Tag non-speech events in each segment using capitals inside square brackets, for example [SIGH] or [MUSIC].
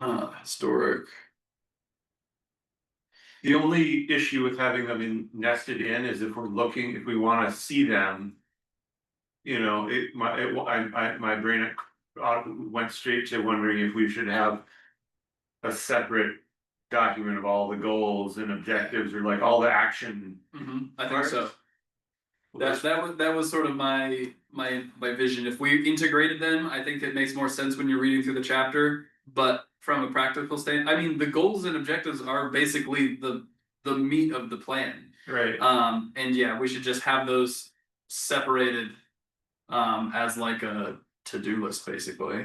Uh, historic. The only issue with having them in nested in is if we're looking, if we wanna see them. You know, it, my, it, I, I, my brain uh, went straight to wondering if we should have. A separate document of all the goals and objectives or like all the action. Mhm, I think so. That Parts. that was that was sort of my my my vision. If we integrated them, I think it makes more sense when you're reading through the chapter. But from a practical stand, I mean, the goals and objectives are basically the the meat of the plan. Right, Um, and yeah, we should just have those separated um as like a to-do list, basically.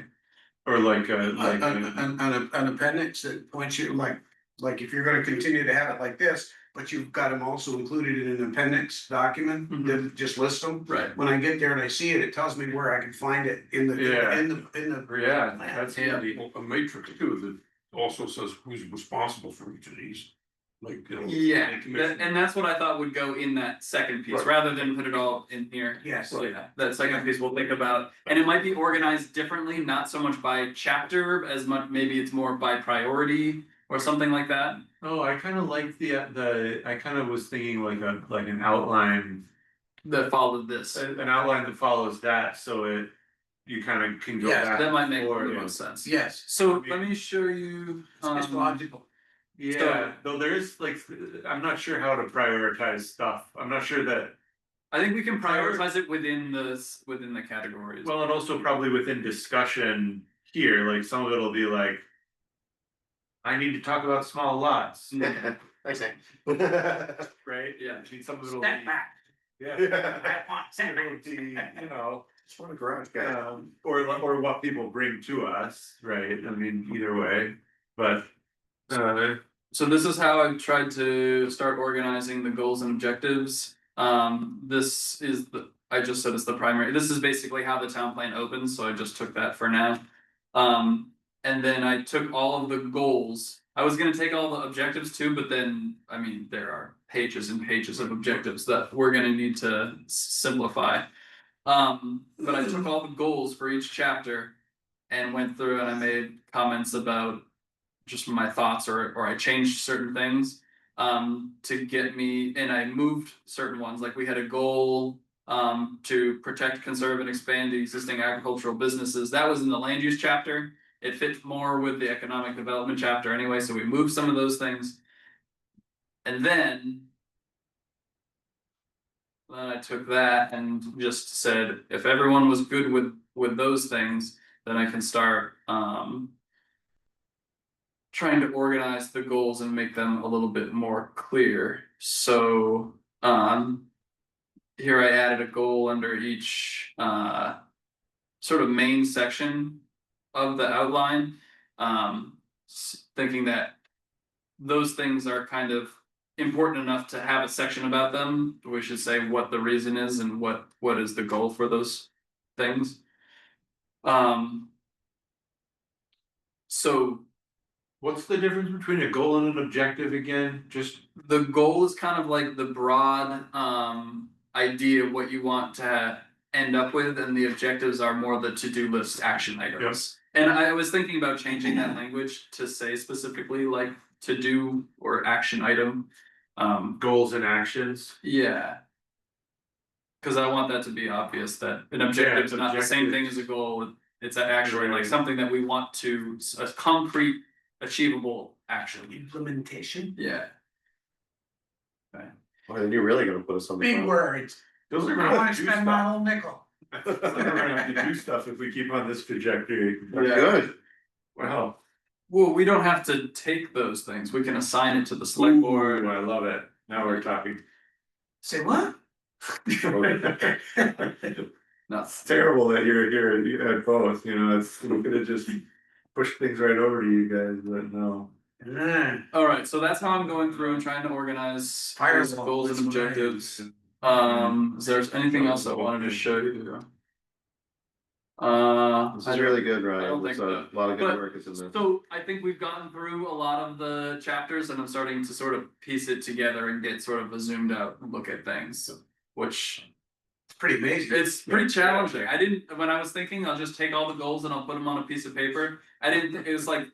or like a, like uh, An, an, a, Uh, an- an- an appendix that points you like, like if you're gonna continue to have it like this, but you've got them also included in an appendix document that just lists them. Right. When I get there and I see it, it tells me where I can find it in the, Yeah. in the, in the. yeah, that's. Yeah. handy. Well, a matrix too, that also says who's responsible for each of these, like, you know. Yeah, commission- that- and that's what I thought would go in that second piece, Right. rather than put it all in here. Yes. So yeah, that second piece we'll think about, and it might be organized differently, not so much by chapter as much, maybe it's more by priority or something like that. Oh, I kind of like the, the, I kind of was thinking like a, like an outline, That followed this, an an outline that follows that, so it. You kind of can go Yes, back. that might make the or- yeah. most sense. Yes. So let me show you. It's um, logical. Yeah, though there is like, I'm not sure how to prioritize stuff, I'm not sure that, I think we can Prior- prioritize it within this, within the categories. well, and also probably within discussion here, like some of it'll be like. I need to talk about small [LAUGHS] lots, I [LAUGHS] say. right? Yeah. I mean, some of it'll be, [LAUGHS] yeah, some of it'll be, you know. It's one of the garage guys. Um, or li- or what people bring to us, right? I mean, either way, but. Uh, So this is how I've tried to start organizing the goals and objectives. Um, this is the, I just said it's the primary, this is basically how the town plan opens, so I just took that for now. Um, and then I took all of the goals. I was gonna take all the objectives too, but then, I mean, there are pages and pages of objectives that we're gonna need to s- simplify. Um, but I took all the goals for each chapter and went through and I made comments about just my thoughts or or I changed certain things um to get me and I moved certain ones like we had a goal um to protect conserve and expand the existing agricultural businesses that was in the land use chapter it fit more with the economic development chapter anyway so we moved some of those things and then then I took that and just said if everyone was good with with those things then I can start um trying to organize the goals and make them a little bit more clear. So, um, here I added a goal under each, uh, sort of main section of the outline, um, s- thinking that those things are kind of important enough to have a section about them. We should say what the reason is and what, what is the goal for those things. Um, so what's the difference between a goal and an objective again? Just, the goal is kind of like the broad um idea of what you want to end up with and the objectives are more the to-do list action items. And I was thinking about changing that language to say specifically like to do or action item. Um, goals and actions, yeah. Cause I want that to be obvious that an objective is it's not the same thing objectives. as a goal. It's actually like Right. something that we want to, a concrete, achievable action. Implementation. Yeah. Well, Oh, then you're really gonna put us on the. Big front. words. those I are gonna wanna have to do spend my stuff. whole nickel. Those are gonna have to do stuff if we keep on this trajectory. Yeah. Good. Wow. Well, we don't have to take those things, we can assign it to the select board. Ooh, I love it, now we're talking. [LAUGHS] Say what? It's Nuts. terrible that you're here, you had both, you know, it's, we could have just pushed things right over to you guys, but no. Yeah. Alright, so that's how I'm going through and trying to organize Firewall, those goals that's and what I- objectives. Um, is there anything else I wanted to show you? Uh. This I is don't- really good, Ryan. I don't There's think a so. lot of good But- work is in there. So I think we've gotten through a lot of the chapters and I'm starting to sort of piece it together and get sort of a zoomed out look at things, which It's pretty amazing. It's pretty challenging. I didn't, when I was thinking, I'll just take all the goals and I'll put them on a piece of paper. I didn't, it was like